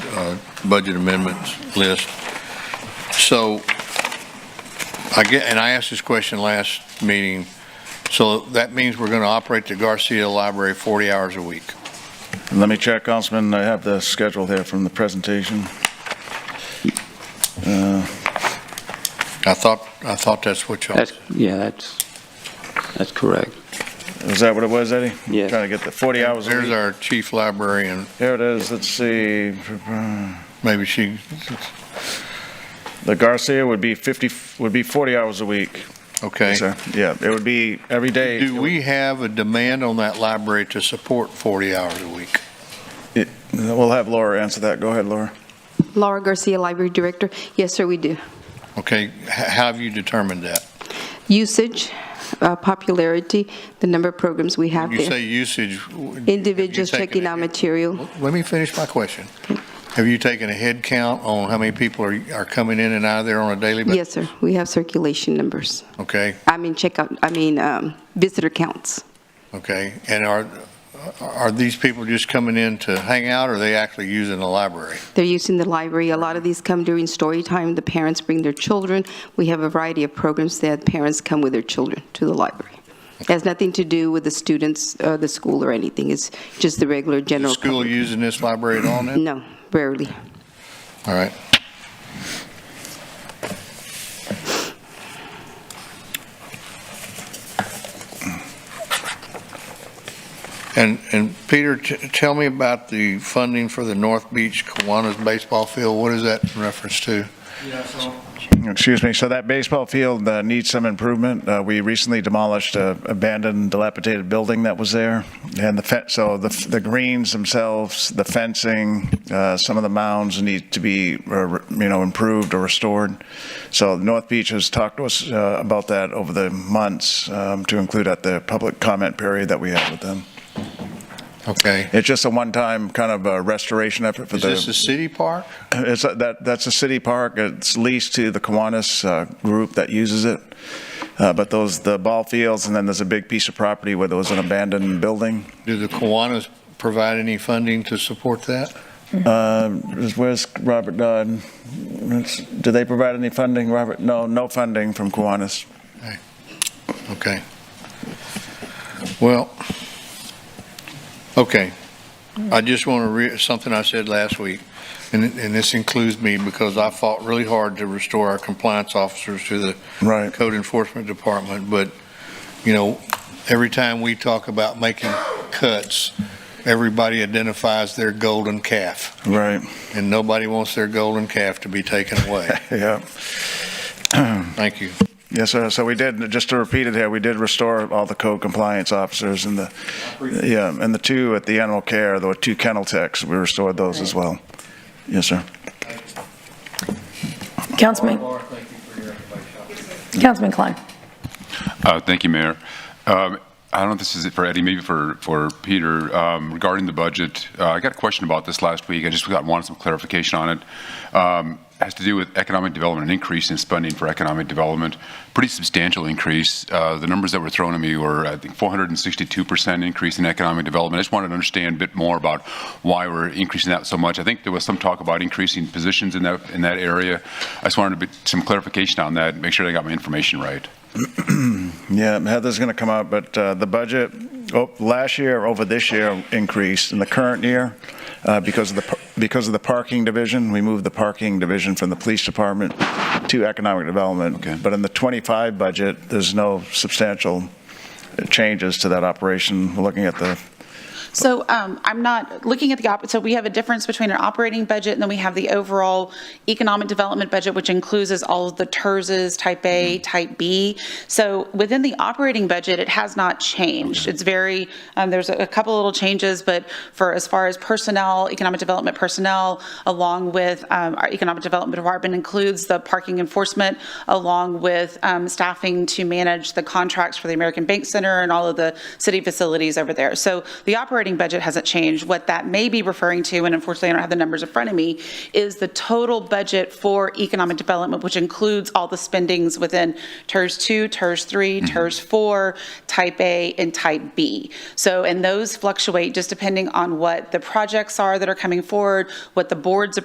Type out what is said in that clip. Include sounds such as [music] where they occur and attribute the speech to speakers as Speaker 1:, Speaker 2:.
Speaker 1: uh, budget amendments list. So I get, and I asked this question last meeting, so that means we're going to operate the Garcia Library 40 hours a week.
Speaker 2: Let me check, Councilman, I have the schedule here from the presentation.
Speaker 1: I thought, I thought that's what y'all,
Speaker 3: That's, yeah, that's, that's correct.
Speaker 2: Is that what it was, Eddie?
Speaker 3: Yes.
Speaker 2: Trying to get the 40 hours a
Speaker 1: there's
Speaker 2: week.
Speaker 1: our chief librarian,
Speaker 2: Here it is, let's see,
Speaker 1: maybe she,
Speaker 2: the Garcia would be 50, would be 40 hours a week.
Speaker 1: okay.
Speaker 2: sir. Yeah, it would be every day.
Speaker 1: Do we have a demand on that library to support 40 hours a week?
Speaker 2: It- We'll have Laura answer that, go ahead, Laura.
Speaker 4: Laura Garcia, Library Director. Yes, sir, we do.
Speaker 1: Okay, h- how have you determined that?
Speaker 4: Usage, uh, popularity, the number of programs we have
Speaker 1: You
Speaker 4: there.
Speaker 1: say usage. w- have you
Speaker 4: Individuals
Speaker 1: taken
Speaker 4: checking
Speaker 1: a-
Speaker 4: out material.
Speaker 1: Let me finish my question. Have you taken a head count on how many people are, are coming in and out of there on a daily basis?
Speaker 4: Yes, sir, we have circulation numbers.
Speaker 1: Okay,
Speaker 4: I mean, checkout, I mean, um, visitor counts.
Speaker 1: okay. And are, are these people just coming in to hang out, or are they actually using the library?
Speaker 4: They're using the library. A lot of these come during story time. The parents bring their children. We have a variety of programs that parents come with their children to the library. It has nothing to do with the students, uh, the school or anything. It's just the regular
Speaker 1: Is the
Speaker 4: general.
Speaker 1: school
Speaker 4: public.
Speaker 1: using this library at all now?
Speaker 4: No, rarely.
Speaker 1: All right. And, and Peter, t- tell me about the funding for the North Beach Kiwanis baseball field. What is that in reference to?
Speaker 2: Excuse me, so that baseball field uh, needs some improvement. Uh, We recently demolished a abandoned dilapidated building that was there, and the, fe- so the the greens themselves, the fencing, uh, some of the mounds need to be, uh, you know, improved or restored. So North Beach has talked to us uh, about that over the months, um, to include at the public comment period that we had with them.
Speaker 1: Okay.
Speaker 2: It's just a one-time kind of uh, restoration effort for
Speaker 1: Is
Speaker 2: the.
Speaker 1: this a city park?
Speaker 2: It's, a- that, that's a city park, it's leased to the Kiwanis uh, group that uses it. Uh, But those, the ball fields, and then there's a big piece of property where there was an abandoned building.
Speaker 1: Do the Kiwanis provide any funding to support that?
Speaker 2: Uh, Where's Robert Dodd? It's- Do they provide any funding, Robert? No, no funding from Kiwanis.
Speaker 1: Okay. Well, okay. I just want to re, something I said last week, and, and this includes me because I fought really hard to restore our compliance officers to the
Speaker 2: Right.
Speaker 1: code enforcement department, but, you know, every time we talk about making cuts, everybody identifies their golden calf,
Speaker 2: Right,
Speaker 1: and nobody wants their golden calf to be taken away.
Speaker 2: [laughs] yeah.
Speaker 1: Thank you.
Speaker 2: Yes, sir. So we did, just to repeat it here, we did restore all the code compliance officers and the, yeah, and the two at the animal care, there were two kennel techs, we restored those as well. Yes, sir.
Speaker 5: Councilman, Councilman Klein.
Speaker 6: Uh, Thank you, Mayor. Um, I don't know if this is it for Eddie, maybe for, for Peter. Um, Regarding the budget, uh, I got a question about this last week. I just got, wanted some clarification on it. Um, Has to do with economic development, an increase in spending for economic development, pretty substantial increase. Uh, The numbers that were thrown at me were, I think, 462% increase in economic development. I just wanted to understand a bit more about why we're increasing that so much. I think there was some talk about increasing positions in that, in that area. I just wanted a bit, some clarification on that, make sure I got my information right.
Speaker 2: Yeah, Heather's going to come out, but uh, the budget, oh, last year over this year increased in the current year uh, because of the, par- because of the parking division. We moved the parking division from the police department to economic development.
Speaker 6: Okay.
Speaker 2: But in the 25 budget, there's no substantial changes to that operation. We're Looking at the,
Speaker 7: So um, I'm not looking at the, op- so we have a difference between an operating budget, and then we have the overall economic development budget, which includes is all of the E TERSs, type A, type B. So within the operating budget, it has not changed. It's very, um, there's a a couple little changes, but for as far as personnel, economic development personnel, along with um, our economic development department includes the parking enforcement, along with um, staffing to manage the contracts for the American Bank Center and all of the city facilities over there. So the operating budget hasn't changed. What that may be referring to, and unfortunately I don't have the numbers in front of me, is the total budget for economic development, which includes all the spendings within TERS 2, TERS 3, TERS 4, Type A, and Type B. So, and those fluctuate just depending on what the projects are that are coming forward, what the board's